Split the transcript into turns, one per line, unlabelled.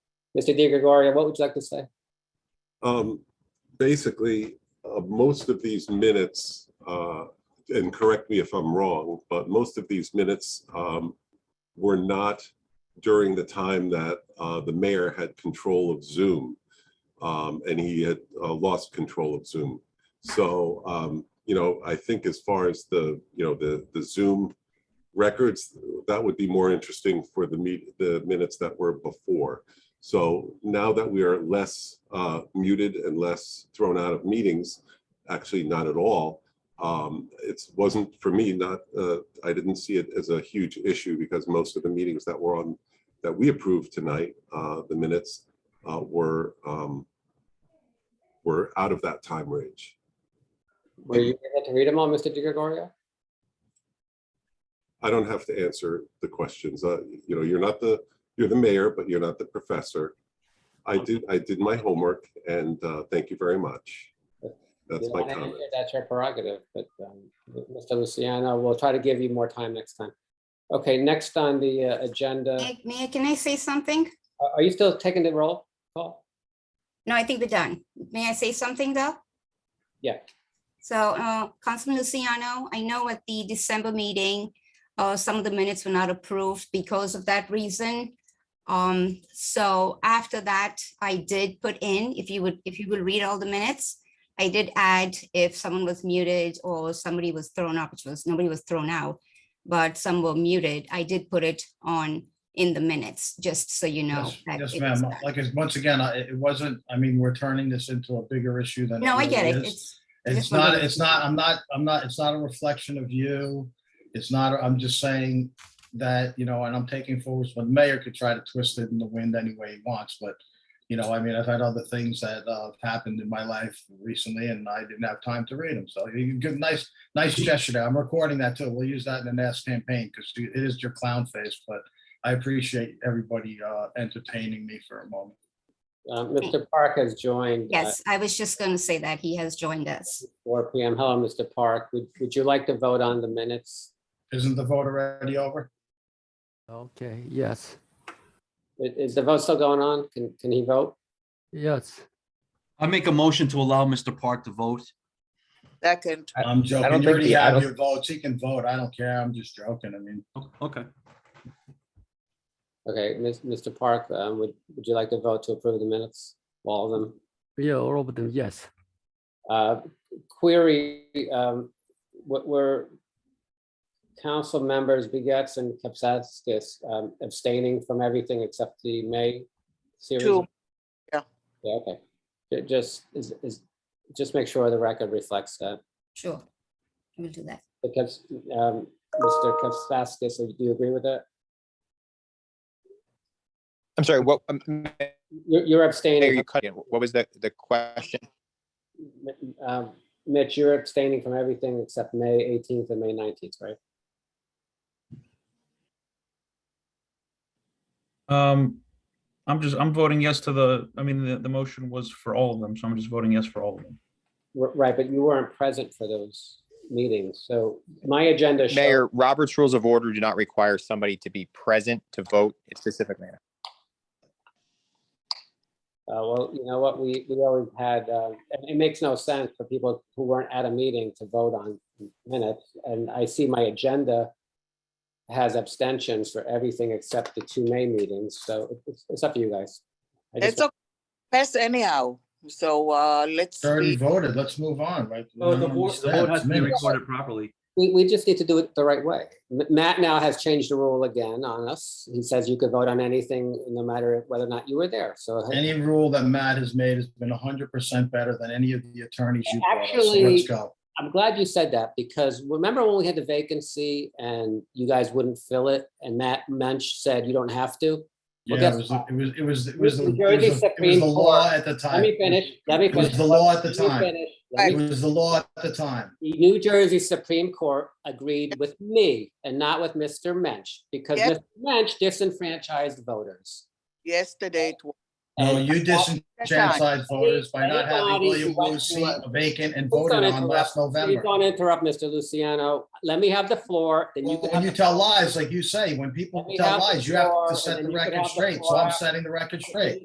Mr. De Gregorio, what would you like to say?
Um, basically, uh, most of these minutes, uh, and correct me if I'm wrong, but most of these minutes, um, were not during the time that, uh, the mayor had control of Zoom. Um, and he had, uh, lost control of Zoom. So, um, you know, I think as far as the, you know, the, the Zoom records, that would be more interesting for the meet, the minutes that were before. So now that we are less uh, muted and less thrown out of meetings, actually not at all, um, it wasn't for me, not, uh, I didn't see it as a huge issue because most of the meetings that were on, that we approved tonight, uh, the minutes uh, were, um, were out of that time range.
Were you able to read them all, Mr. De Gregorio?
I don't have to answer the questions. Uh, you know, you're not the, you're the mayor, but you're not the professor. I did, I did my homework and, uh, thank you very much. That's
You
my
don't wanna
comment.
answer, That's your prerogative, but um, Mr. Luciano, we'll try to give you more time next time. Okay, next on the uh, agenda,
May may I- can I say something?
are- are you still taking the roll call?
No, I think we're done. May I say something, though?
Yeah.
So, uh, Councilman Luciano, I know at the December meeting, uh, some of the minutes were not approved because of that reason. Um, so after that, I did put in, if you would, if you will read all the minutes, I did add if someone was muted or somebody was thrown out, which was, nobody was thrown out, but some were muted, I did put it on in the minutes, just so you know.
Yes,
that
Yes,
it was
ma'am.
done.
Like, it's- once again, I- it wasn't, I mean, we're turning this into a bigger issue than.
No, I get it.
really is.
It's,
It's
just one of
not,
those
it's not, I'm not, I'm not, it's not a reflection of you. It's not, I'm just saying that, you know, and I'm taking forwards, but mayor could try to twist it in the wind any way he wants, but you know, I mean, I've had other things that uh, have happened in my life recently and I didn't have time to read them. So you give nice, nice gesture there. I'm recording that too. We'll use that in the next campaign because it is your clown face, but I appreciate everybody uh, entertaining me for a moment.
Uh, Mr. Park has joined. uh,
yes, I was just going to say that he has joined us.
Four PM. Hello, Mr. Park. Would, would you like to vote on the minutes?
Isn't the vote already over?
Okay, yes,
I- Is the vote still going on? Can, can he vote?
yes.
I make a motion to allow Mr. Park to vote.
Second,
I'm joking.
don't
You
think
already
the- I
have
don't-
your votes. He can vote. I don't care. I'm just joking. I mean,
O- Okay,
Okay, Ms- Mr. Park, um, would, would you like to vote to approve the minutes? All of them?
Yeah, all of them, yes.
Uh, Query, um, what were council members Begets and Kapsakis um, abstaining from everything except the May series?
two,
Yeah, okay. Ju- Just, is, is, just make sure the record reflects that.
Sure. We'll do that.
Because, um, Mr. Kapsakis, do you agree with that?
I'm sorry, what, um, Mayor,
You're you're
you
abstaining,
cut in. What was the, the question?
um, Mitch, you're abstaining from everything except May 18th and May 19th, right?
Um, I'm just, I'm voting yes to the, I mean, the, the motion was for all of them, so I'm just voting yes for all of them.
R- Right, but you weren't present for those meetings, so my agenda shows,
Mayor, Robert's Rules of Order do not require somebody to be present to vote in specific manner.
uh, well, you know what, we, we always had, uh, and it makes no sense for people who weren't at a meeting to vote on minutes, and I see my agenda has abstentions for everything except the two May meetings, so it's, it's up to you guys. I just
it's a pass anyhow, so uh, let's
they already
be,
voted. Let's move on, right?
Oh,
So the vote, the vote has to be
Minutes.
recorded properly.
We, we just need to do it the right way. M- Matt now has changed the rule again on us. He says you could vote on anything, no matter whether or not you were there, so.
Any rule that Matt has made has been hundred percent better than any of the attorneys you brought. us. So
Actually-
Let's go.
I'm glad you said that, because remember when we had the vacancy and you guys wouldn't fill it, and Matt Mensch said you don't have to? Well,
Yeah,
guess
it was, it was, it was, it
New
was the- it
Jersey
was the- it was
Supreme
the law
Court-
at the time.
Let me finish, let me
It was
finish.
the law at the
Let me
time.
finish. Let
It
me-
was the law at the time.
The New Jersey Supreme Court agreed with me and not with Mr. Mensch, because
Yes.
Mr. Mensch disenfranchised voters.
yesterday, it was
No,
And
Oh, you disenfranchised voters by not having
Anybody who
William Wu's
wants to,
seat
uh,
vacant and
Please
voted
don't
on
interrupt.
last
Please
November.
Don't interrupt, Mr. Luciano. Let me have the floor, then you can
When
have
you
the
tell lies, like you say, when people
Let me
tell
have the
lies, you have
floor,
to
and
set
then
the
you can
record
have the
straight. So
floor.
I'm setting the record straight.